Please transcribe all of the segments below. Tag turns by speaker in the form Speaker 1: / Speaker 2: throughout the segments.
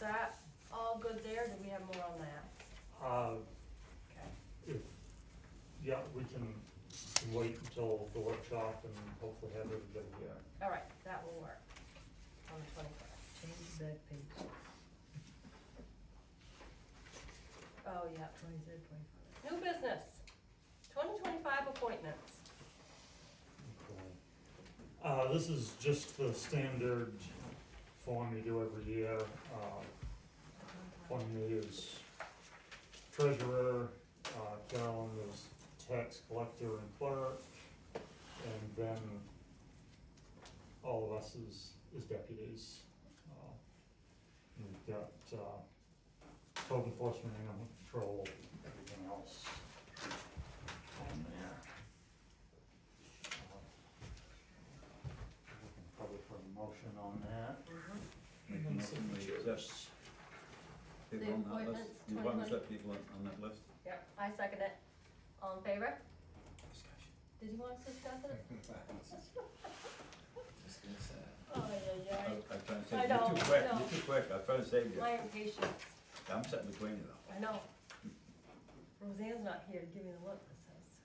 Speaker 1: that all good there, do we have more on that?
Speaker 2: Uh,
Speaker 1: Okay.
Speaker 2: if, yeah, we can wait until the workshop and hopefully have everybody here.
Speaker 1: All right, that will work on the twenty-first.
Speaker 3: Change the back page,
Speaker 1: Oh, yeah.
Speaker 3: twenty-third, twenty-fourth.
Speaker 1: New business, twenty twenty-five appointments.
Speaker 2: Uh, this is just the standard form you do every year. Uh, one is treasurer, uh, Carolyn is tax collector and clerk, and then all of us is, is deputies. Uh, and We've got, uh, code enforcement, animal control, everything else on there. Uh, Looking Probably for a motion on that.
Speaker 4: Make a motion we accept people
Speaker 1: The
Speaker 4: on that
Speaker 1: appointments,
Speaker 4: list. You want to
Speaker 1: 2020.
Speaker 4: accept people on, on that list?
Speaker 1: Yep, I second it. All in favor? Did you want us to discuss it?
Speaker 5: Discuss that.
Speaker 1: Oh, yeah,
Speaker 4: I,
Speaker 1: yeah.
Speaker 4: I try and
Speaker 1: I
Speaker 4: save, you're
Speaker 1: don't,
Speaker 4: too quick,
Speaker 1: no.
Speaker 4: you're too quick, I try to save you.
Speaker 1: My impatience,
Speaker 4: I'm sitting between you though.
Speaker 1: I know. Roseanne's not here to give me the look that says.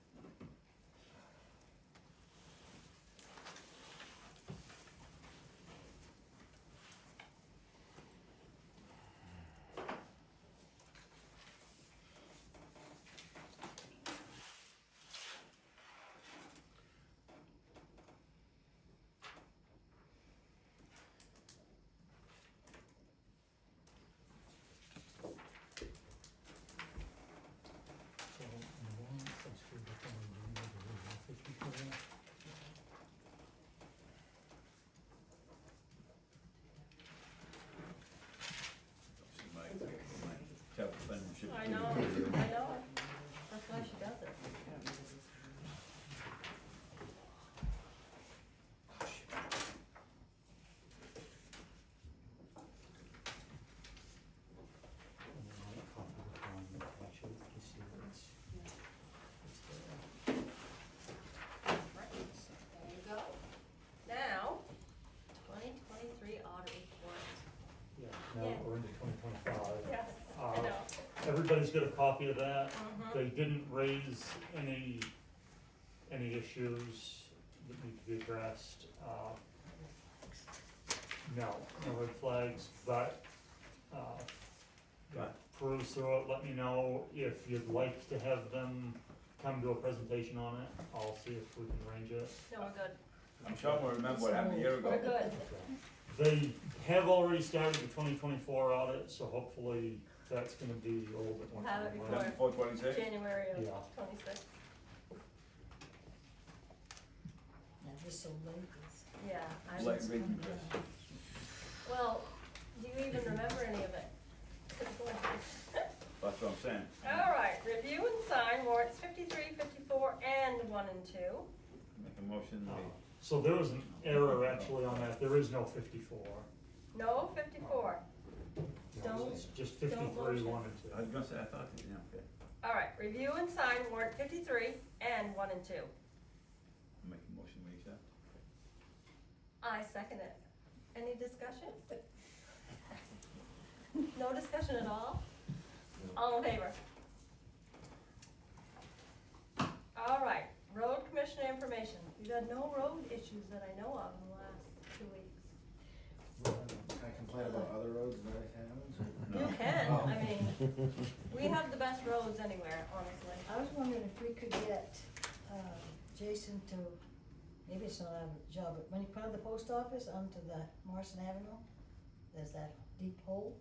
Speaker 2: So, one, six, three, four, nine, nine, nine, fifty, four.
Speaker 4: She might, she might tell the friendship.
Speaker 1: I know, I know. That's why she does it.
Speaker 2: And then I'll copy the plan, make sure that you see where it's- it's there.
Speaker 1: Right, there you go. Now, twenty twenty-three audit report.
Speaker 2: Yeah,
Speaker 1: Yeah.
Speaker 2: now we're into twenty twenty-five.
Speaker 1: Yes, I
Speaker 2: Uh,
Speaker 1: know.
Speaker 2: Everybody's got a copy of that.
Speaker 1: Mhm.
Speaker 2: They didn't raise any, any issues that need to be addressed. Uh, No, no red flags, but, uh,
Speaker 4: Right.
Speaker 2: peruse through it, let me know if you'd like to have them come do a presentation on it. I'll see if we can arrange it.
Speaker 1: No, we're good.
Speaker 4: I'm sure we'll remember what happened a year ago.
Speaker 1: We're good.
Speaker 2: They have already started the twenty twenty-four audit, so hopefully that's gonna be a little bit more.
Speaker 1: We'll have it
Speaker 2: timely.
Speaker 1: before-
Speaker 4: Four twenty-six?
Speaker 1: January of
Speaker 2: Yeah.
Speaker 1: twenty-six.
Speaker 3: Now, this so late, it's.
Speaker 1: Yeah, I
Speaker 4: Like reading
Speaker 3: coming
Speaker 4: this.
Speaker 1: Well, do you even remember any of it?
Speaker 4: That's what I'm saying.
Speaker 1: All right, review and sign warrants fifty-three, fifty-four, and one and two.
Speaker 4: Make a motion,
Speaker 2: Uh,
Speaker 4: we,
Speaker 2: So there was an error actually on that, there is no fifty-four.
Speaker 1: No, fifty-four. Don't-
Speaker 2: It's just
Speaker 1: don't
Speaker 2: fifty-three,
Speaker 1: motion.
Speaker 2: one and two.
Speaker 4: I was gonna say, I thought, yeah, okay,
Speaker 1: All right, review and sign warrant fifty-three and one and two.
Speaker 4: make a motion, we accept.
Speaker 1: I second it. Any discussion? No discussion at all? All in favor? All right, road commissioner information. You've had no road issues that I know of in the last two weeks.
Speaker 5: I complain about other roads that I found.
Speaker 4: No.
Speaker 1: You can, I
Speaker 5: Oh.
Speaker 1: mean, we have the best roads anywhere, honestly.
Speaker 3: I was wondering if we could get, uh, Jason to, maybe it's not our job, but when he put out the post office onto the Morrison Avenue, there's that deep hole.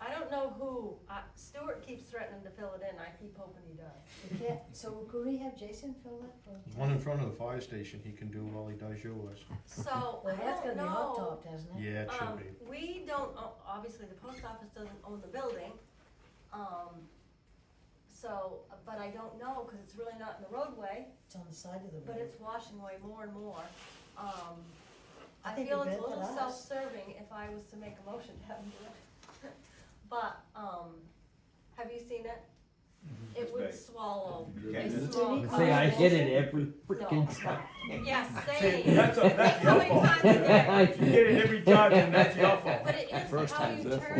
Speaker 1: I don't know who, uh, Stuart keeps threatening to fill it in, I keep hoping he does.
Speaker 3: We can't, so could we have Jason fill that for?
Speaker 6: The One in front of the fire station he can do while he does yours.
Speaker 1: So, I
Speaker 3: Well, that's
Speaker 1: don't
Speaker 3: gonna be hot
Speaker 1: know.
Speaker 3: topped, hasn't it?
Speaker 6: Yeah, it should
Speaker 1: Um,
Speaker 6: be.
Speaker 1: we don't, o- obviously, the post office doesn't own the building, um, so, but I don't know, cause it's really not in the roadway,
Speaker 3: It's on the side of the road.
Speaker 1: but it's washing away more and more. Um,
Speaker 3: I
Speaker 1: I
Speaker 3: think
Speaker 1: feel
Speaker 3: it'd
Speaker 1: it's a
Speaker 3: benefit
Speaker 1: little
Speaker 3: us.
Speaker 1: self-serving if I was to make a motion to have him do it. But, um, have you seen it? It would
Speaker 4: Right.
Speaker 1: swallow.
Speaker 4: You
Speaker 1: a
Speaker 4: can't do it.
Speaker 1: small
Speaker 3: You
Speaker 7: Say I
Speaker 1: car.
Speaker 7: did it every
Speaker 1: No.
Speaker 7: freaking time.
Speaker 1: Yes,
Speaker 4: See,
Speaker 1: same,
Speaker 4: that's, that's
Speaker 1: How
Speaker 4: your
Speaker 1: many
Speaker 4: fault.
Speaker 1: times a day?
Speaker 4: If you get it every time, then that's your fault.
Speaker 1: but it is
Speaker 7: First
Speaker 1: how
Speaker 7: time's
Speaker 1: you
Speaker 7: the
Speaker 1: turn